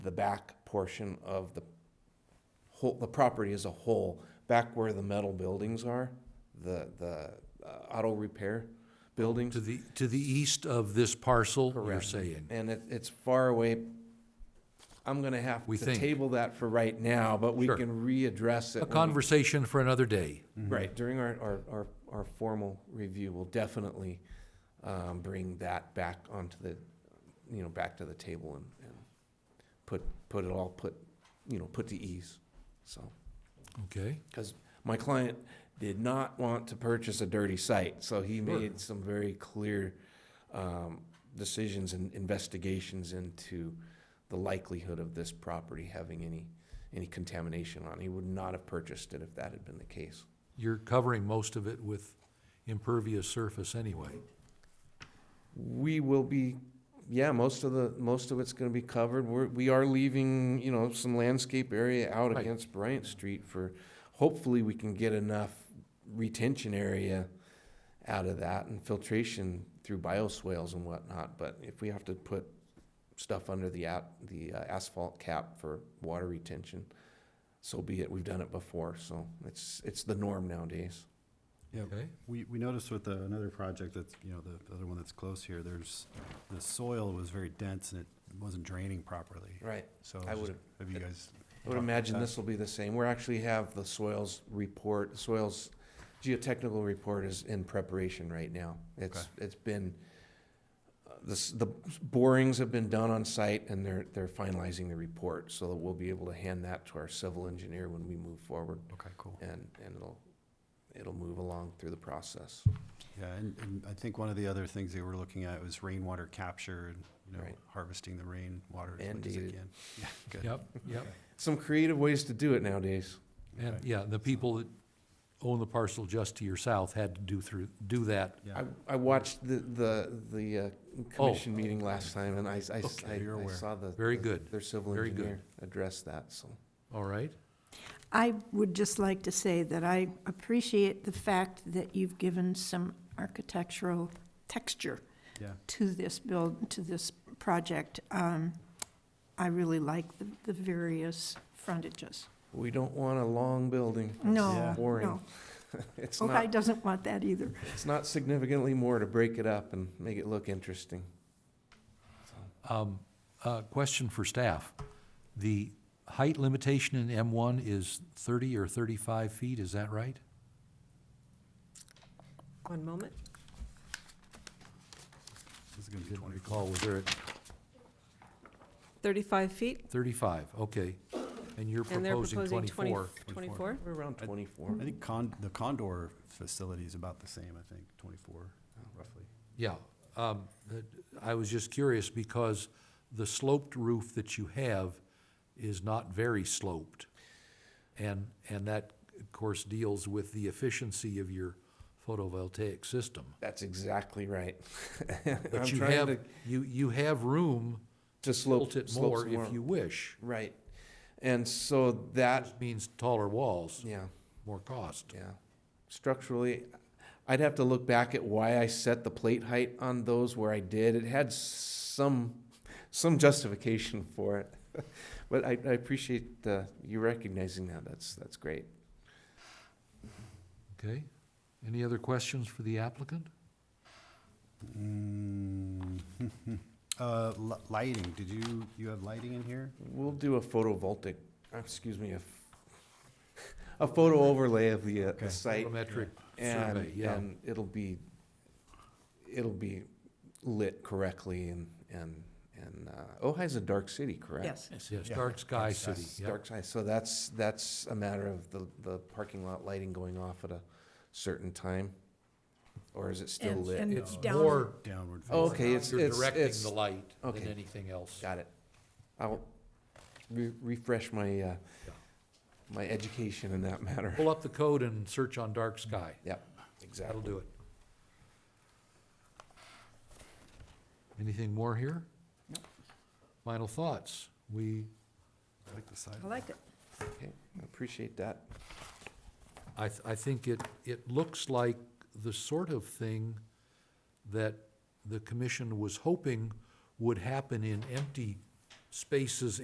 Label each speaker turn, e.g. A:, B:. A: the back portion of the whole, the property as a whole, back where the metal buildings are, the, the uh, auto repair buildings.
B: To the, to the east of this parcel, you're
A: Correct.
B: saying?
A: And it, it's far away. I'm gonna have
B: We
A: to
B: think.
A: table that for right now, but we
B: Sure.
A: can readdress it.
B: A
A: when we-
B: conversation for another day.
A: Right, during our, our, our, our formal review, we'll definitely, um, bring that back onto the, you know, back to the table and, and put, put it all, put, you know, put to ease, so.
B: Okay,
A: Cause my client did not want to purchase a dirty site, so he
B: Sure.
A: made some very clear, um, decisions and investigations into the likelihood of this property having any, any contamination on it. He would not have purchased it if that had been the case.
B: you're covering most of it with impervious surface anyway.
A: We will be, yeah, most of the, most of it's gonna be covered. We're, we are leaving, you know, some landscape area out
B: Right.
A: against Bryant Street for, hopefully we can get enough retention area out of that and filtration through bioswales and whatnot, but if we have to put stuff under the at, the uh, asphalt cap for water retention, so be it. We've done it before, so it's, it's the norm nowadays.
C: Yeah,
B: Okay,
C: we, we noticed with the, another project that's, you know, the the other one that's close here, there's, the soil was very dense and it wasn't draining properly.
A: Right.
C: So,
A: I
C: I was
A: would've-
C: just- have you guys?
A: I would imagine this will be the same. We're actually have the soils report, soils geotechnical report is in preparation right now. It's, it's been, uh, the, s- the borings have been done on site and they're, they're finalizing the report. So that we'll be able to hand that to our civil engineer when we move forward
C: Okay, cool.
A: and, and it'll, it'll move along through the process.
C: Yeah, and, and I think one of the other things they were looking at was rainwater capture and, you know,
A: Right.
C: harvesting the rainwater as much as they
A: Mandated.
C: can. Yeah, good.
B: yep, yep.
A: Some creative ways to do it nowadays.
B: And,
C: Okay.
B: yeah, the people that own the parcel just to your south had to do through, do that.
C: Yeah,
A: I, I watched the, the, the uh, commission meeting last time and I, s- I s-
B: Oh. Okay.
A: I-
C: You're
A: I
C: aware.
A: saw the.
B: Very
A: the-
B: good.
A: Their civil
B: Very good.
A: engineer addressed that, so.
B: All right?
D: I would just like to say that I appreciate the fact that you've given some architectural texture
C: yeah.
D: to this build, to this project. Um, I really like the, the various frontages.
A: We don't want a long building.
D: No,
C: Yeah.
A: Boring.
D: no.
A: It's
D: Okai
A: not,
D: doesn't want that either.
A: it's not significantly more to break it up and make it look interesting.
B: Um, uh, question for staff. The height limitation in M one is thirty or thirty-five feet, is that right?
E: One moment.
C: This is gonna be
B: Didn't
C: twenty.
B: recall, was there at
E: 35 feet,
B: thirty-five? Okay. And you're
E: and they're
B: proposing
E: proposing 20
B: twenty-four.
E: 24?
A: We're around
C: I-
A: twenty-four.
C: I think con, the Condor facility is about the same, I think, twenty-four roughly.
B: Yeah, um, that- I was just curious because the sloped roof that you have is not very sloped. And, and that, of course, deals with the efficiency of your photovoltaic system.
A: That's exactly right. I'm
B: But you
A: trying
B: have,
A: to,
B: you, you have room
A: to
B: to tilt
A: slope,
B: it
A: slope
B: more
A: some more.
B: if you wish.
A: Right. And so that,
B: That means taller walls,
A: yeah.
B: more cost.
A: Yeah. Structurally, I'd have to look back at why I set the plate height on those where I did. It had some, some justification for it. But I, I appreciate uh, you recognizing that. That's, that's great.
B: Okay? Any other questions for the applicant?
C: Mm, Uh, li- lighting, did you, you have lighting in here?
A: We'll do a photovoltaic, uh, excuse me, a, f- a photo overlay of the, uh,
C: Okay.
A: the site.
B: Photometric
A: And,
B: survey, yeah.
A: and it'll be, it'll be lit correctly and, and, and, uh, Ojai's a dark city, correct?
D: Yes.
B: Yes,
C: Yeah.
B: dark sky
C: Dark
B: city, yeah.
A: Dark side, so that's, that's a matter of the, the parking lot lighting going off at a certain time? Or is it still
D: And-
A: lit?
D: and
B: It's
D: down-
B: more
C: Downward.
A: Oh,
C: facing.
A: okay. it's-
B: You're
A: it's-
B: directing
A: it's-
B: the light than
A: okay.
B: anything else.
A: Got it. I'll re- refresh my, uh,
B: Yeah. Oh.
A: my education in that matter.
B: Pull up the code and search on dark sky.
A: Yep,
B: That'll
A: exactly.
B: do it. Anything more here? Final thoughts? We,
C: I like the side.
D: I like it.
A: Okay, I appreciate that.
B: I, th- I think it, it looks like the sort of thing that the commission was hoping would happen in empty spaces